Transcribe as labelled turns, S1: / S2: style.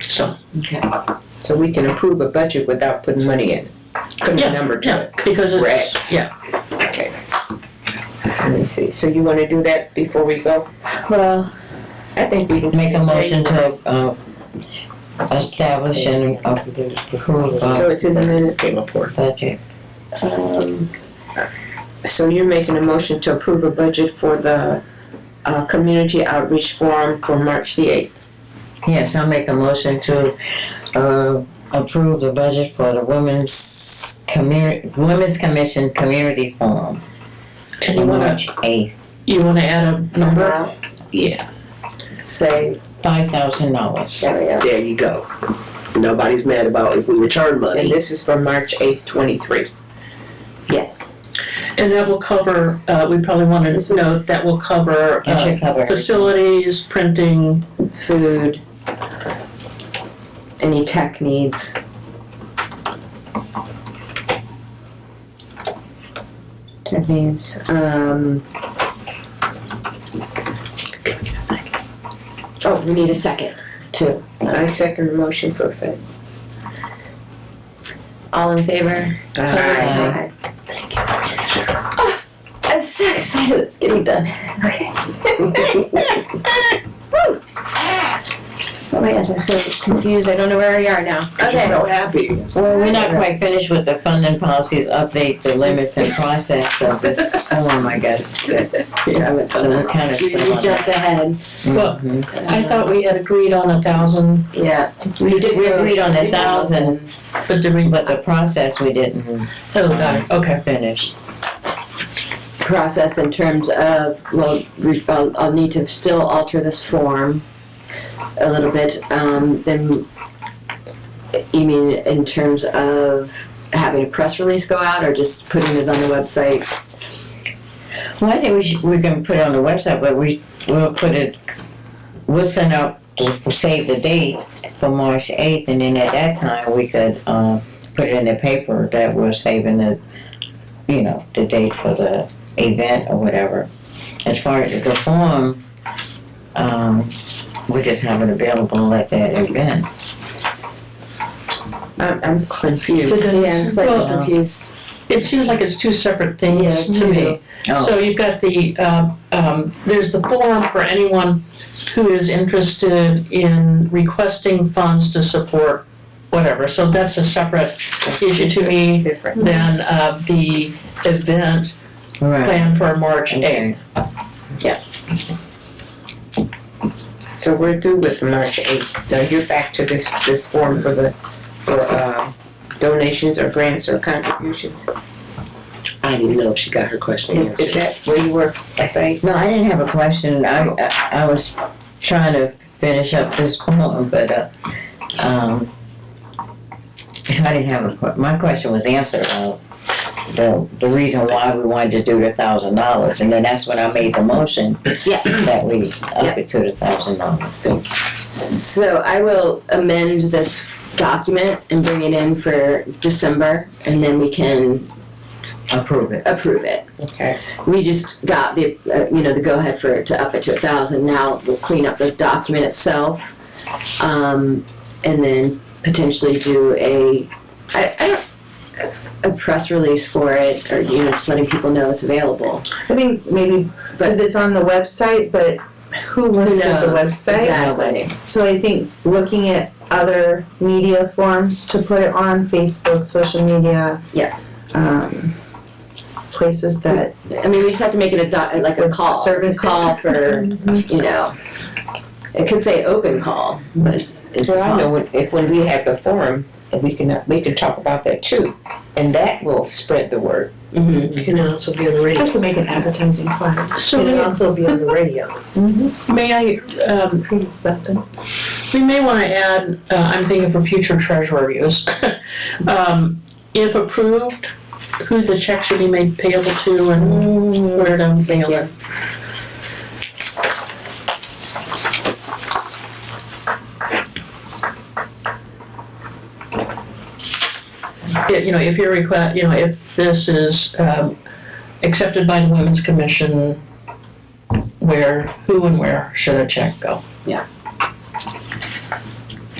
S1: So,
S2: Okay.
S3: So we can approve a budget without putting money in, putting
S1: Yeah,
S3: a number to
S1: yeah,
S3: it.
S1: because it's,
S3: Rex.
S1: yeah,
S3: Let me see, so you wanna do that before we go?
S2: Well,
S3: I think we can.
S4: Make a motion to, uh, establish and approve
S3: So
S4: a
S3: it's in the minutes.
S1: came up for.
S4: budget.
S2: um,
S3: So you're making a motion to approve a budget for the, uh, community outreach forum for March the eighth.
S4: Yes, I'll make a motion to, uh, approve the budget for the Women's Community, Women's Commission Community Forum.
S1: And you wanna,
S4: March eighth,
S1: you wanna add a number?
S5: Yes,
S2: say,
S4: five thousand dollars.
S2: there we go.
S5: there you go. Nobody's mad about if we return
S3: And
S5: money.
S3: this is for March eighth, twenty-three.
S2: Yes.
S1: And that will cover, uh, we probably wanna note, that will cover,
S4: That
S1: uh,
S4: should cover. it.
S1: facilities, printing,
S2: Food. Any tech needs. Tech needs, um. Oh, we need a second, too.
S3: I second the motion for Fed.
S2: All in favor?
S3: Aye.
S2: Thank you so much. Oh, I'm so excited it's getting done. Okay. Woo. Oh my gosh, I'm so confused. I don't know where we are now.
S5: I'm just
S2: Okay.
S5: so happy.
S4: Well, we're not quite finished with the funding policies update, the limits and process of this form, I guess.
S3: Yeah.
S4: So we're kind of
S1: We- we
S4: still
S2: We
S4: on that.
S2: jumped ahead.
S1: well,
S4: Mhm.
S1: I thought we had agreed on a thousand,
S2: Yeah.
S4: We did, we agreed on a thousand,
S1: but did we,
S4: but the process we didn't
S1: oh, got it, okay.
S4: finish.
S2: Process in terms of, well, re- I'll, I'll need to still alter this form a little bit. Um, then, you mean in terms of having a press release go out or just putting it on the website?
S4: Well, I think we should, we can put it on the website, but we, we'll put it, we'll send out, we'll save the date for March eighth, and then at that time, we could, um, put it in the paper that we're saving the, you know, the date for the event or whatever. As far as the form, um, we just have it available at that event.
S3: I'm, I'm confused.
S2: Yeah, I'm slightly
S1: Well-
S2: confused.
S1: It seems like it's two separate things
S2: Yeah,
S1: to me.
S2: two.
S4: Oh.
S1: So you've got the, um, um, there's the forum for anyone who is interested in requesting funds to support whatever. So that's a separate issue to me
S3: Different.
S1: than uh, the event
S4: Oh, Right.
S1: planned for March 8th.
S3: So we're through with March eighth. Now you're back to this, this form for the, for, uh, donations or grants or contributions.
S5: I didn't know if she got her question
S3: Is, is
S5: answered.
S3: that where you were, FA?
S4: No, I didn't have a question. I, I, I was trying to finish up this poem, but, uh, um, so I didn't have a, que- my question was answered, uh, the, the reason why we wanted to do the thousand dollars, and then that's when I made the motion.
S2: Yeah.
S4: That we up it to the thousand dollars.
S2: So I will amend this document and bring it in for December, and then we can
S4: Approve it.
S2: approve it.
S3: Okay.
S2: We just got the, uh, you know, the go-ahead for, to up it to a thousand, now we'll clean up the document itself. Um, and then potentially do a, I, I don't, a press release for it, or, you know, just letting people know it's available.
S6: I think maybe because it's on the website, but who
S2: Who
S6: looks at
S2: knows?
S6: the website?
S2: Exactly.
S6: So I think looking at other media forms to put it on Facebook, social media.
S2: Yeah.
S6: Um, places that
S2: I mean, we just have to make it a doc, like a call, it's
S6: Service.
S2: a call for, you know, it could say open call, but it's a
S3: Well, I
S2: call.
S3: know when, if, when we have the forum, we can, we can talk about that too. And that will spread the word.
S2: Mhm.
S5: Can it also be on the
S6: I
S5: radio?
S6: could make an advertising plan.
S1: So
S5: Can it
S1: may-
S5: also be on the radio?
S1: may I, um, We may want to add, uh, I'm thinking for future treasurer use, um, if approved, who the check should be made payable to and where to mail it. Yeah, You know, if your request, you know, if this is, um, accepted by the Women's Commission, where, who and where should a check go?
S2: Yeah.